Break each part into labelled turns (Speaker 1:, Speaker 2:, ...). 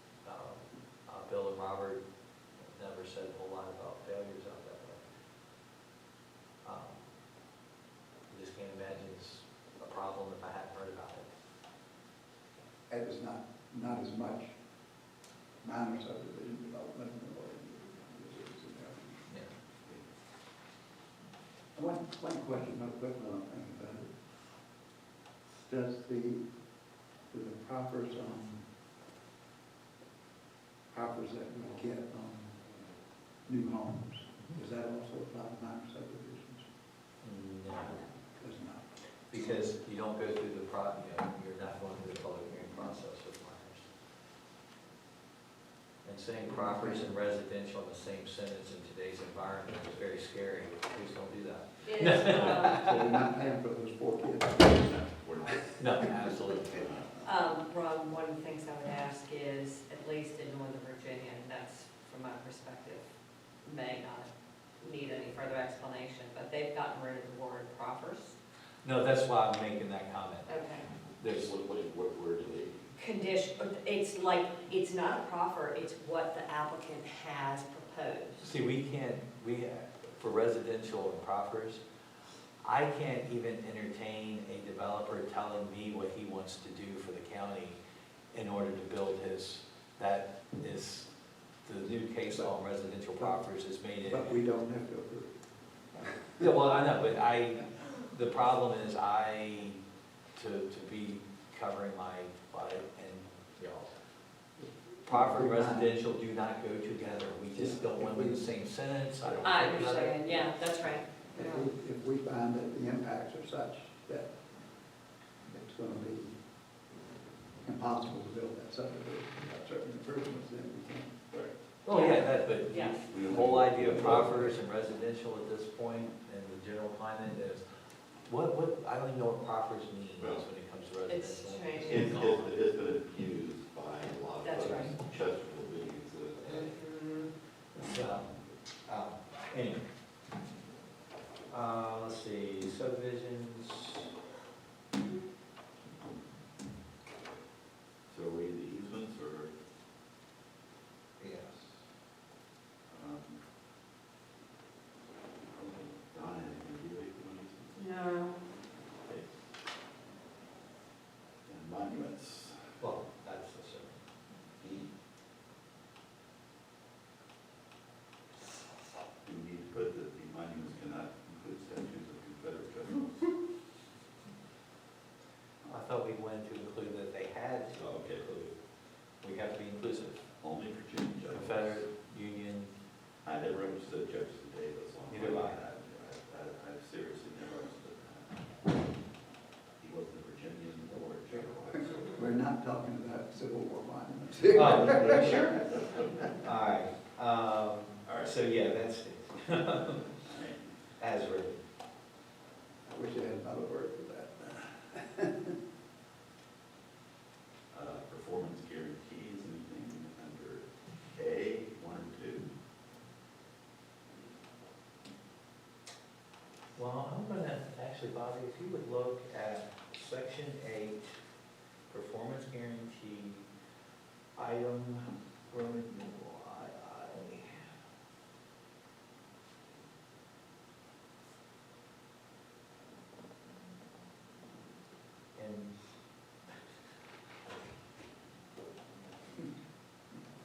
Speaker 1: Um, Robert never said a whole lot about failures out that way. Um, I just can't imagine it's a problem if I hadn't heard about it.
Speaker 2: It was not, not as much minor subdivision development in the way it is in there.
Speaker 1: Yeah.
Speaker 2: One, one question, real quick, while I'm thinking about it. Does the, do the proffers, um, proffers that we get on new homes, does that also apply to minor subdivisions?
Speaker 1: No,
Speaker 2: Does not.
Speaker 1: Because you don't go through the pro, you know, you're not going through the public hearing process with minors. And saying properties and residential in the same sentence in today's environment is very scary. Please don't do that.
Speaker 3: It is, um,
Speaker 2: So we're not paying for those four kids.
Speaker 4: We're not.
Speaker 1: No, absolutely.
Speaker 3: um, Ron, one of the things I would ask is, at least in Northern Virginia, and that's from my perspective, may not need any further explanation, but they've gotten rid of the word proffers.
Speaker 1: No, that's why I'm making that comment.
Speaker 3: Okay.
Speaker 1: There's,
Speaker 4: What, what, what word do they,
Speaker 3: Condition, it's like, it's not a proffer, it's what the applicant has proposed.
Speaker 1: see, we can't, we, for residential and proffers, I can't even entertain a developer telling me what he wants to do for the county in order to build his, that is, the new case law on residential proffers is made it.
Speaker 2: But we don't have to approve.
Speaker 1: Yeah, well, I know, but I, the problem is I, to, to be covering my butt and, you know, proper residential do not go together. We just don't want them in the same sentence. I don't.
Speaker 3: I
Speaker 1: think about it.
Speaker 3: understand, yeah, that's right.
Speaker 2: If we, if we find that the impacts are such that it's gonna be impossible to build that subdivision without certain improvements, then we can.
Speaker 1: Oh, yeah, that, but
Speaker 3: Yeah.
Speaker 1: the whole idea of proffers and residential at this point and the general climate is, what, what, I don't even know what proffers means when it comes to
Speaker 3: It's
Speaker 1: residential.
Speaker 3: strange.
Speaker 4: It's, it's, it's been abused by a lot of.
Speaker 3: That's
Speaker 4: folks.
Speaker 3: right.
Speaker 4: Chesterfield being the,
Speaker 3: Mhm.
Speaker 1: So, um, anyway. Uh, let's see, subdivisions,
Speaker 4: so are we the easements or,
Speaker 1: yes.
Speaker 4: um, Donna, have you made one easement?
Speaker 3: No,
Speaker 4: Okay. And monuments,
Speaker 1: Well, that's the same.
Speaker 4: E. Do we need to put that the monuments cannot include statues of Confederate generals?
Speaker 1: I thought we wanted to include that they had to
Speaker 4: Oh, okay.
Speaker 1: include, we have to be inclusive,
Speaker 4: Only Virginia judges.
Speaker 1: Confederate, Union,
Speaker 4: I never understood Jefferson Davis on.
Speaker 1: Neither have I.
Speaker 4: I, I seriously never understood that. He wasn't a Virginian or a general.
Speaker 2: We're not talking about Civil War monuments.
Speaker 1: Oh, yeah, sure. All right, um,
Speaker 4: All right.
Speaker 1: so yeah, that's it,
Speaker 4: All right.
Speaker 1: as written.
Speaker 2: I wish I had another word for that.
Speaker 4: Uh, performance guarantees, anything under A, one or two?
Speaker 1: Well, I'm gonna, actually, Bobby, if you would look at section eight, performance guarantee, item, Roman numeral II. And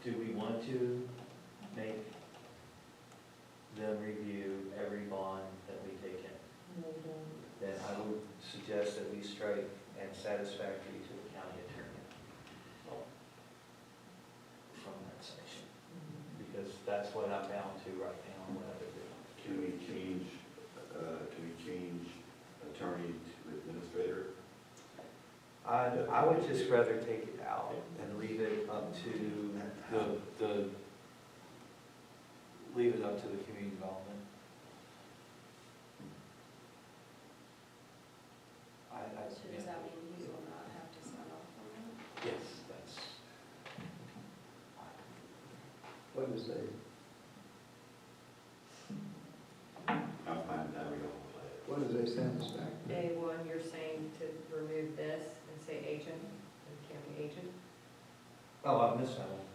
Speaker 1: do we want to make them review every bond that we take in? then I would suggest that we strike and satisfactory to the county attorney from that section, because that's what I'm bound to right now, and what I would do.
Speaker 4: Can we change, uh, can we change attorney to administrator?
Speaker 1: I, I would just rather take it out and leave it up to the, the, leave it up to the community development. I, I.
Speaker 5: So does that mean you will not have to sign off on that?
Speaker 1: Yes, that's.
Speaker 2: What is a,
Speaker 4: I'm fine with that, we all play it.
Speaker 2: what is a satisfactory?
Speaker 3: Day one, you're saying to remove this and say agent, it can't be agent?
Speaker 1: Oh, I missed that one.